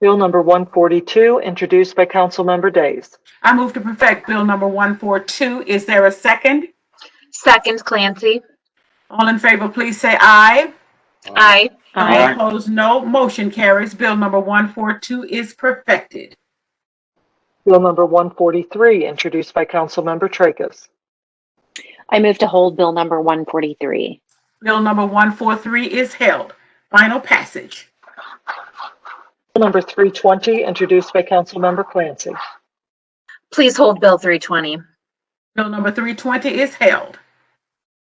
Bill number 142, introduced by Councilmember Days. I move to perfect Bill number 142. Is there a second? Second Clancy. All in favor, please say aye. Aye. All opposed, no. Motion carries. Bill number 142 is perfected. Bill number 143, introduced by Councilmember Tracus. I move to hold Bill number 143. Bill number 143 is held. Final passage. Bill number 320, introduced by Councilmember Clancy. Please hold Bill 320. Bill number 320 is held.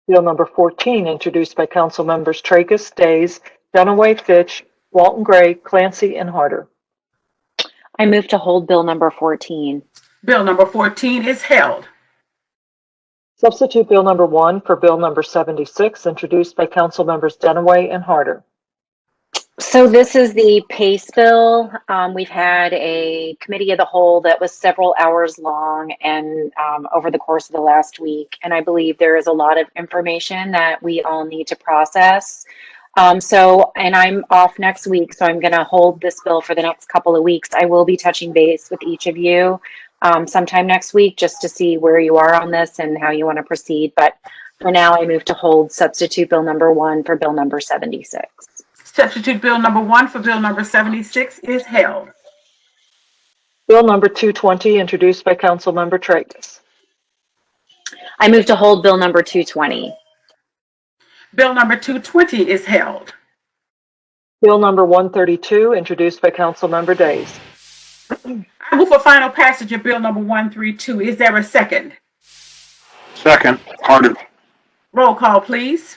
Bill number 14, introduced by Councilmembers Tracus, Days, Dunaway, Fitch, Walton Gray, Clancy, and Harder. I move to hold Bill number 14. Bill number 14 is held. Substitute Bill number 1 for Bill number 76, introduced by Councilmembers Dunaway and Harder. So this is the PACE bill. Um, we've had a committee of the whole that was several hours long and um, over the course of the last week. And I believe there is a lot of information that we all need to process. Um, so, and I'm off next week, so I'm going to hold this bill for the next couple of weeks. I will be touching base with each of you um, sometime next week just to see where you are on this and how you want to proceed. But for now, I move to hold substitute bill number one for bill number 76. Substitute Bill number 1 for Bill number 76 is held. Bill number 220, introduced by Councilmember Tracus. I move to hold Bill number 220. Bill number 220 is held. Bill number 132, introduced by Councilmember Days. I move for final passage of Bill number 132. Is there a second? Second, Harder. Roll call, please.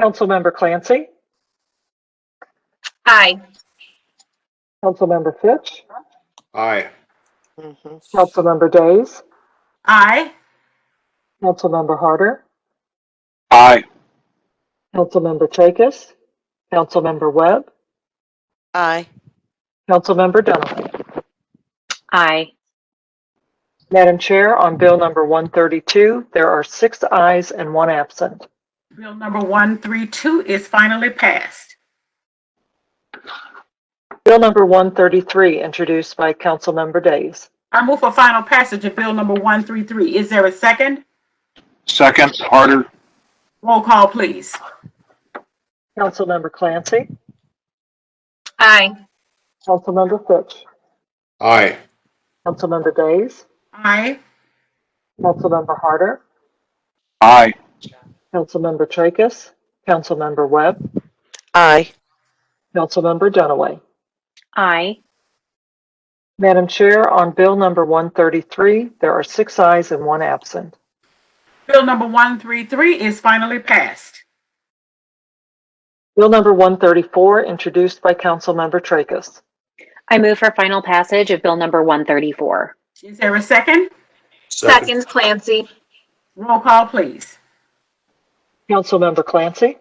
Councilmember Clancy, Aye. Councilmember Fitch, Aye. Councilmember Days, Aye. Councilmember Harder, Aye. Councilmember Tracus, Councilmember Webb, Aye. Councilmember Dunaway. Aye. Madam Chair, on Bill number 132, there are six ayes and one absent. Bill number 132 is finally passed. Bill number 133, introduced by Councilmember Days. I move for final passage of Bill number 133. Is there a second? Second, Harder. Roll call, please. Councilmember Clancy, Aye. Councilmember Fitch, Aye. Councilmember Days, Aye. Councilmember Harder, Aye. Councilmember Tracus, Councilmember Webb, Aye. Councilmember Dunaway. Aye. Madam Chair, on Bill number 133, there are six ayes and one absent. Bill number 133 is finally passed. Bill number 134, introduced by Councilmember Tracus. I move for final passage of Bill number 134. Is there a second? Second Clancy. Roll call, please. Councilmember Clancy? Aye.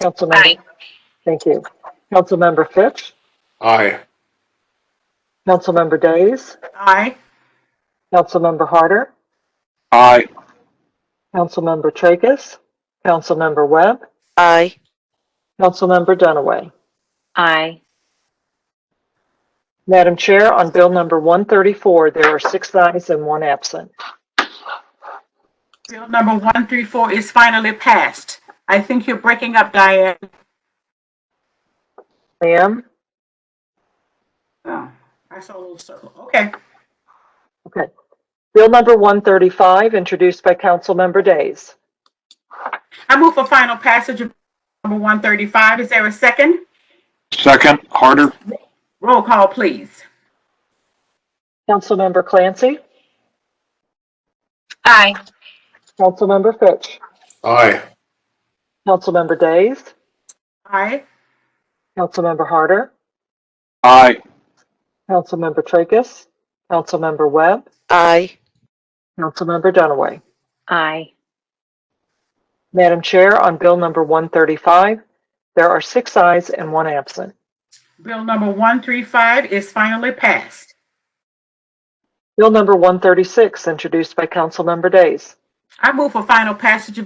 Councilmember, thank you. Councilmember Fitch, Aye. Councilmember Days, Aye. Councilmember Harder, Aye. Councilmember Tracus, Councilmember Webb, Aye. Councilmember Dunaway. Aye. Madam Chair, on Bill number 134, there are six ayes and one absent. Bill number 134 is finally passed. I think you're breaking up, Diane. Ma'am? Oh, I saw a little circle. Okay. Okay. Bill number 135, introduced by Councilmember Days. I move for final passage of number 135. Is there a second? Second, Harder. Roll call, please. Councilmember Clancy, Aye. Councilmember Fitch, Aye. Councilmember Days, Aye. Councilmember Harder, Aye. Councilmember Tracus, Councilmember Webb, Aye. Councilmember Dunaway. Aye. Madam Chair, on Bill number 135, there are six ayes and one absent. Bill number 135 is finally passed. Bill number 136, introduced by Councilmember Days. I move for final passage of